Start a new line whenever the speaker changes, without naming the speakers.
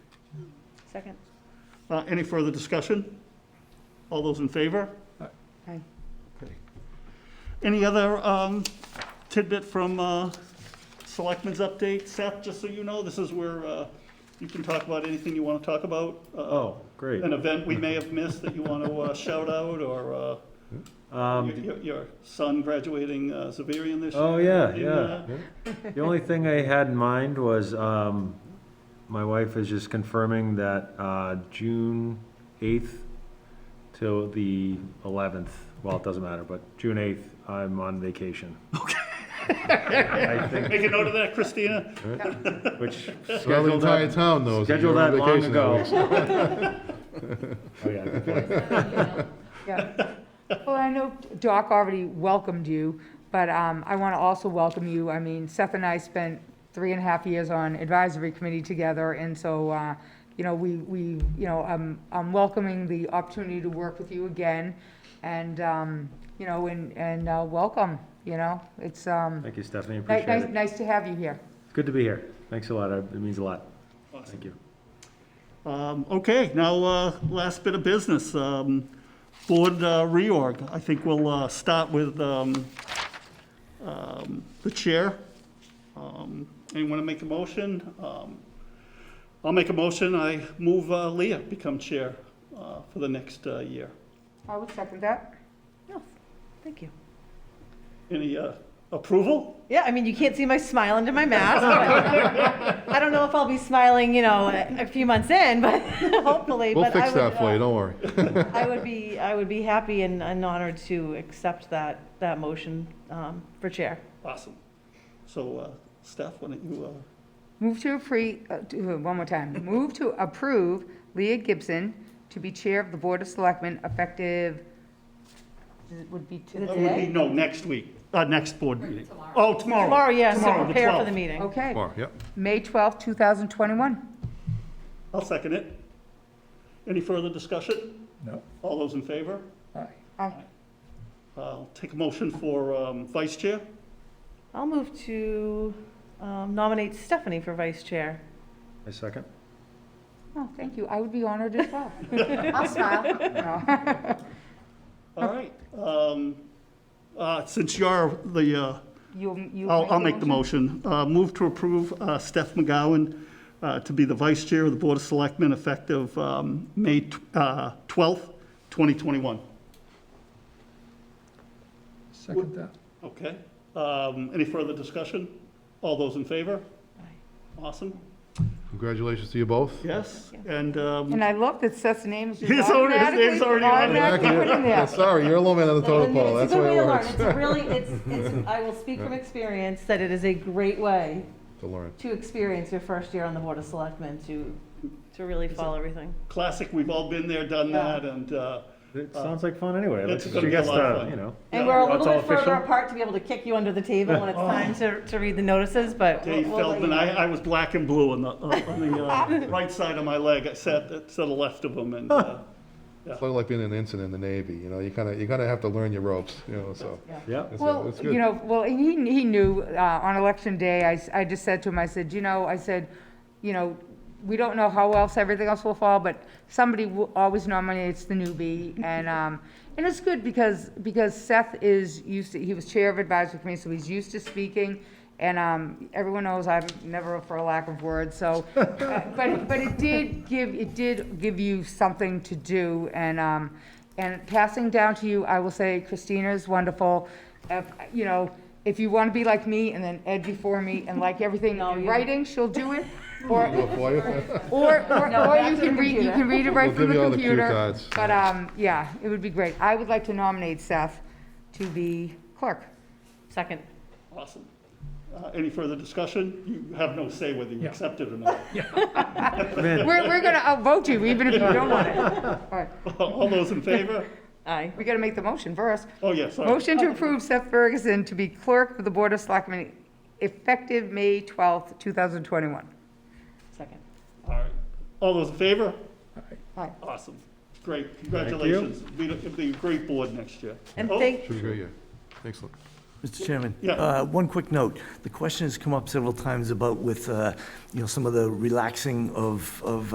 Second.
Uh, Any further discussion? All those in favor?
Aye.
Okay. Any other um, tidbit from uh, Selectmen's update? Seth, just so you know, this is where uh, you can talk about anything you want to talk about. uh,
Oh, great.
An event we may have missed that you want to shout out, or uh, your-
Um,
your your son graduating uh, Zavarian this year?
oh, yeah,
in,
yeah.
uh,
The only thing I had in mind was, um, my wife is just confirming that, uh, June eighth till the eleventh, well, it doesn't matter, but June eighth, I'm on vacation. I think,
Make a note of that, Christina.
which
Well, the
scheduled
entire
that,
town knows. that
scheduled
you're on
that long
vacation
ago.
that week.
Oh, yeah, good point.
Yeah. Well, I know Doc already welcomed you, but um, I want to also welcome you. I mean, Seth and I spent three and a half years on advisory committee together, and so, uh, you know, we, we, you know, I'm, I'm welcoming the opportunity to work with you again, and, um, you know, and, and uh, welcome, you know? It's, um,
Thank you, Stephanie,
ni- nice,
appreciate it.
nice to have you here.
Good to be here. Thanks a lot. I- It means a lot. Thank you.
Um, Okay, now, uh, last bit of business, um, board uh, reorg. I think we'll uh, start with um, um, the chair. Um, Anyone to make a motion? Um, I'll make a motion, I move uh, Leah become chair uh, for the next uh, year.
I would second that.
Oh, thank you.
Any uh, approval?
Yeah, I mean, you can't see my smile under my mask. but I don't know if I'll be smiling, you know, a a few months in, but hopefully.
We'll
but I
fix
would,
that for
uh,
you, don't worry.
I would be, I would be happy and, and honored to accept that, that motion um, for chair.
Awesome. So, uh, Steph, why don't you, uh,
Move to appre, uh, to- uh, one more time. Move to approve Leah Gibson to be Chair of the Board of Selectmen effective, it would be to
that would be,
today?
no, next week, uh, next board meeting. Oh, tomorrow.
Tomorrow, yes,
Tomorrow,
to
the
prepare for the
12th.
meeting.
Okay,
Tomorrow, yep.
May twelfth, two 2021.
I'll second it. Any further discussion?
No.
All those in favor?
Aye.
Aye.
I'll take a motion for um, vice chair.
I'll move to um, nominate Stephanie for vice chair.
I second.
Oh, thank you. I would be honored as well. I'll smile.
All right. um, uh, Since you're the, uh,
You'll, you'll.
I'll I'll make the motion. Uh, Move to approve uh, Steph McGowan uh, to be the vice chair of the Board of Selectmen effective um, May tw- uh, 12th, 2021.
Second that.
Okay. Um, Any further discussion? All those in favor? Awesome.
Congratulations to you both.
Yes. And um,
And I love that Seth's name is just
His own- his name's
automatically,
already on there.
automatically put in
Yeah,
there.
Sorry, you're a low man on the totem pole,
It's
that's
a
the
good
way
way
it
to learn.
works.
It's really, it's, it's, I will speak from experience that it is a great way
To learn.
to experience your first year on the Board of Selectmen, to, to really follow everything.
classic, we've all been there, done
Yeah.
that, and uh,
It sounds like fun anyway. Like,
it's gonna be
she
a
gets
lot of
to,
fun.
You know,
And we're a
That's
little
all
bit further
official? Oh.
apart to be able to kick you under the table when it's time to, to read the notices, but. we'll-
Dave
we'll let
Feldman,
you
I,
know.
I was black and blue on the, uh, on the uh, right side of my leg, I sat to the left of him, and uh,
It's sort of like being an ensign in the Navy, you know, you kind of, you're gonna have to learn your ropes, you know, so.
yeah.
it's-
Well,
it's good.
you know, well, and he, he knew, uh, on election day, I, s- I just said to him, I said, you know, I said, you know, we don't know how else everything else will fall, but somebody wo- always nominates the newbie, and, um, and it's good because, because Seth is used to, he was chair of advisory committee, so he's used to speaking, and, um, everyone knows I'm never for a lack of words, so, uh, but, but it did give, it did give you something to do, and, um, and passing down to you, I will say Christina is wonderful. If, you know, if you want to be like me and then Ed before me and like everything
No,
in
you-
writing, she'll do it. Or,
Do it for you.
or, or, or
back
you
to the
can read, you
computer.
can read it
We'll
right from
give
the
you all the cue
computer.
cards.
But, um, yeah, it would be great. I would like to nominate Seth to be clerk.
Second.
awesome. Uh, Any further discussion? You have no say whether you
Yeah.
accept it or not.
Man,
We're, we're gonna outvote you even if you don't want it. All right,
All those in favor?
Aye.
we gotta make the motion first.
Oh, yeah, sorry.
Motion to approve Seth Ferguson to be clerk of the Board of Selectmen effective May twelfth, two thousand twenty-one.
Second.
Oh.
All right. All those in favor?
Aye.
Awesome. Great, congratulations. Be- It'll be a great board next year.
And
Oh,
thank,
Should be great, yeah. Excellent.
Mr. Chairman?
Yeah.
uh, One quick note. The question has come up several times about with, uh, you know, some of the relaxing of, of